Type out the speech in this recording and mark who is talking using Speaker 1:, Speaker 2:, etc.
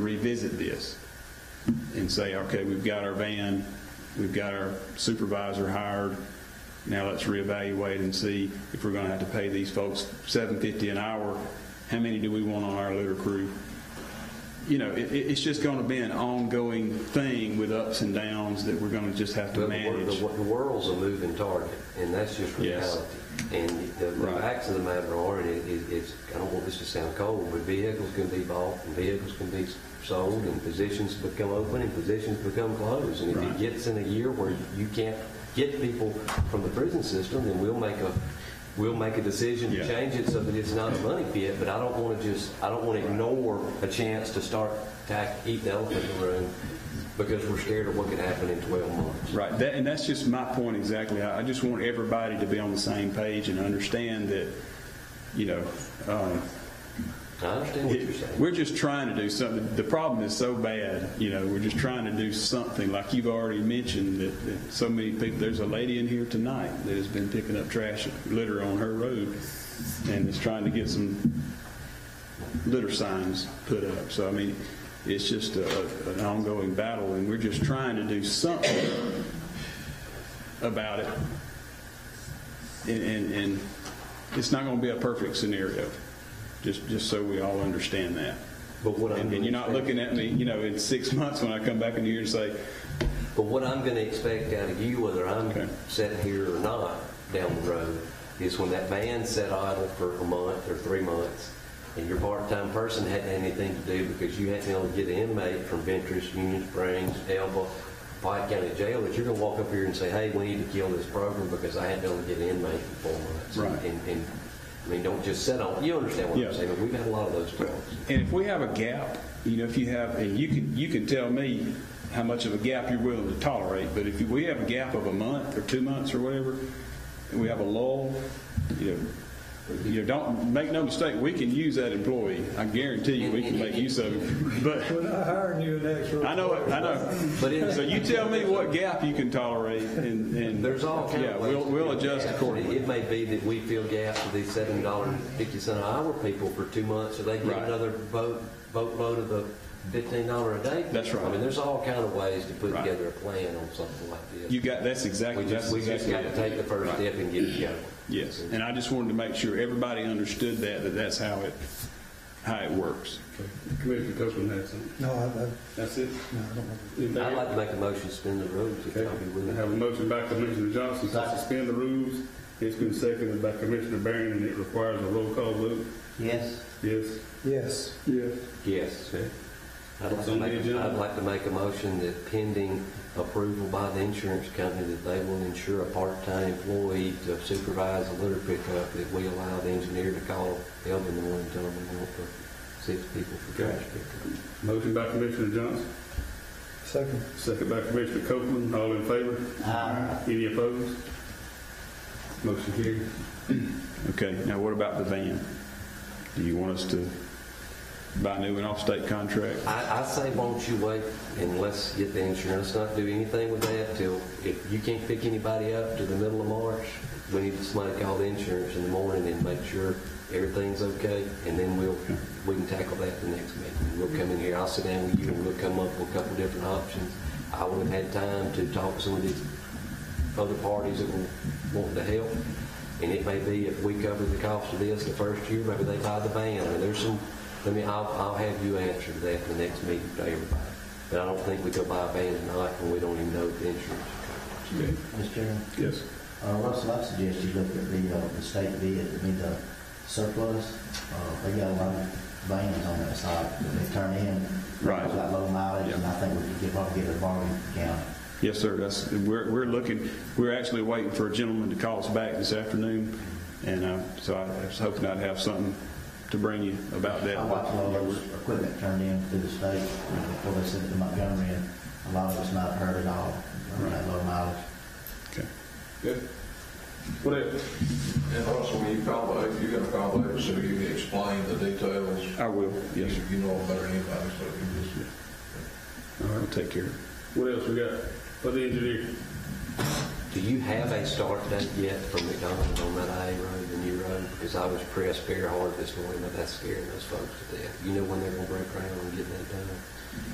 Speaker 1: revisit this and say, okay, we've got our van, we've got our supervisor hired, now let's reevaluate and see if we're going to have to pay these folks seven fifty an hour, how many do we want on our litter crew? You know, it, it- it's just going to be an ongoing thing with ups and downs that we're going to just have to
Speaker 2: The wor-
Speaker 1: manage.
Speaker 2: The wor- the world's a moving target, and that's just
Speaker 1: Yes.
Speaker 2: reality. And the the
Speaker 1: Right.
Speaker 2: facts of the matter are, and it- it- it's, I don't want this to sound cold, but vehicles can be bought, and vehicles can be sold, and positions become open, and positions become closed. And if
Speaker 1: Right.
Speaker 2: it gets in a year where you can't get people from the prison system, then we'll make a, we'll make a decision
Speaker 1: Yeah.
Speaker 2: to change it so that it's not a money pit, but I don't want to just, I don't want to ignore a chance to start to eat the elephant in the room, because we're scared of what could happen in 12 months.
Speaker 1: Right, that, and that's just my point exactly. I, I just want everybody to be on the same page and understand that, you know, um,
Speaker 2: I understand what you're saying.
Speaker 1: We're just trying to do something. The problem is so bad, you know, we're just trying to do something. Like you've already mentioned that, that so many people, there's a lady in here tonight that has been picking up trash, litter on her road and is trying to get some litter signs put up. So, I mean, it's just a, an ongoing battle and we're just trying to do something about it. And, and, and it's not going to be a perfect scenario, just, just so we all understand that.
Speaker 2: But what I'm
Speaker 1: And and you're not
Speaker 2: gonna expect-
Speaker 1: looking at me, you know, in six months when I come back in here and say,
Speaker 2: But what I'm going to expect out of you, whether
Speaker 1: Okay.
Speaker 2: I'm sitting here or not down the road, is when that van sat idle for a month or three months, and your part-time person hadn't had anything to do because you hadn't been able to get an inmate from Ventress, Union Springs, Elba, Pike County Jail, that you're going to walk up here and say, hey, we need to kill this program because I hadn't been able to get an inmate for four months.
Speaker 1: Right.
Speaker 2: And, and, I mean, don't just sit on, you understand what
Speaker 1: Yeah.
Speaker 2: I'm saying? We've had a lot of those problems.
Speaker 1: and if we have a gap, you know, if you have, and you can, you can tell me how much of a gap you're willing to tolerate, but if we have a gap of a month or two months or whatever, and we have a lull, you know, you know, don't, make no mistake, we can use that employee. I guarantee you, we can make use of him. But
Speaker 3: We're not hiring you next week.
Speaker 1: I know it. I know.
Speaker 2: But it-
Speaker 1: so you tell me what gap you can tolerate, and, and
Speaker 2: There's all kinds
Speaker 1: Yeah,
Speaker 2: of ways.
Speaker 1: we'll,
Speaker 2: to
Speaker 1: we'll
Speaker 2: fill
Speaker 1: adjust
Speaker 2: gaps.
Speaker 1: accordingly.
Speaker 2: It may be that we fill gaps with these seven dollar and fifty cent an hour people for two months, or they get
Speaker 1: Right.
Speaker 2: another boat, boatload of the fifteen dollar a day.
Speaker 1: That's right.
Speaker 2: I mean, there's all kind of ways to put
Speaker 1: Right.
Speaker 2: together a plan on something like this.
Speaker 1: You got that's
Speaker 2: We
Speaker 1: exactly
Speaker 2: just,
Speaker 1: that's
Speaker 2: we just
Speaker 1: exactly
Speaker 2: got to
Speaker 1: it.
Speaker 2: take the first
Speaker 1: Right.
Speaker 2: step and get it going.
Speaker 1: Yes, and I just wanted to make sure everybody understood that that that's how it how it works.
Speaker 4: Commissioner Copeland had something.
Speaker 3: No, I, I,
Speaker 4: That's it.
Speaker 3: no, I don't have
Speaker 4: Anything
Speaker 2: I'd like
Speaker 4: else?
Speaker 2: to make a motion to spin the rules if
Speaker 4: Okay.
Speaker 2: y'all be
Speaker 4: I
Speaker 2: willing.
Speaker 4: have a motion by Commissioner Johnson to
Speaker 5: Second.
Speaker 4: suspend the rules. It's been seconded by Commissioner Barron, and it requires a roll call vote.
Speaker 5: Yes.
Speaker 4: Yes?
Speaker 3: it. Yes,
Speaker 4: Yes.
Speaker 2: Yes. I'd like
Speaker 4: It's
Speaker 2: to
Speaker 4: on the
Speaker 2: make,
Speaker 4: agenda.
Speaker 2: I'd like to make a motion that pending approval by the insurance company, that they will insure a part-time employee to supervise a litter pickup, that we allow the engineer to call Elvin in the morning, and tell them we want for six people for trash pickup.
Speaker 4: Motion by Commissioner Johnson,
Speaker 3: second.
Speaker 4: second by Commissioner Copeland. All in favor?
Speaker 5: Aye.
Speaker 4: Any opposed? Motion carried.
Speaker 1: Okay, now what about the van? Do you want us to buy new and off-state contract?
Speaker 2: I, I say, won't you wait and let's get the insurance, let's not do anything with that till, if you can't pick anybody up to the middle of March, we need somebody to call the insurance in the morning and make sure everything's okay, and then we'll, we can tackle that the next meeting. We'll come in here, I'll sit down with you, and we'll come up with a couple different options. I would have had time to talk to some of these other parties that were wanting to help, and it may be if we cover the cost of this the first year, maybe they buy the van, or there's some, I mean, I'll, I'll have you answer that in the next meeting to everybody. But I don't think we go buy a van tonight when we don't even know the insurance.
Speaker 5: Mr. Chairman,
Speaker 1: Yes.
Speaker 5: uh, Russell, I suggest you look at the, uh, the state bid, I mean, the surplus. Uh, they got a lot of vans on that side that they turn in.
Speaker 1: Right.
Speaker 5: It's got low mileage, and I think we could get- probably get a bargain down.
Speaker 1: Yes, sir. That's, we're, we're looking, we're actually waiting for a gentleman to call us back this afternoon. And uh, so I was hoping I'd have something to bring you about that.
Speaker 5: I watched a lot of those equipment turned in through the state before they sent it to Montgomery, and a lot of it's not hurt at all, uh, that low mileage.
Speaker 1: Okay.
Speaker 6: Good.
Speaker 4: What else?
Speaker 6: And Russell, when you call back, you're gonna call back so you can explain the details.
Speaker 1: I will, yes, sir.
Speaker 6: You- You know them better than anybody, so you just.
Speaker 4: All
Speaker 1: I'll
Speaker 4: right.
Speaker 1: take care of it.
Speaker 4: What else we got? For the engineer?
Speaker 2: Do you have a start date yet for McDonald's on that A road, the new road? done is I was pressed very hard this morning about that scaring those folks to death. You know when they're gonna break ground and get that done.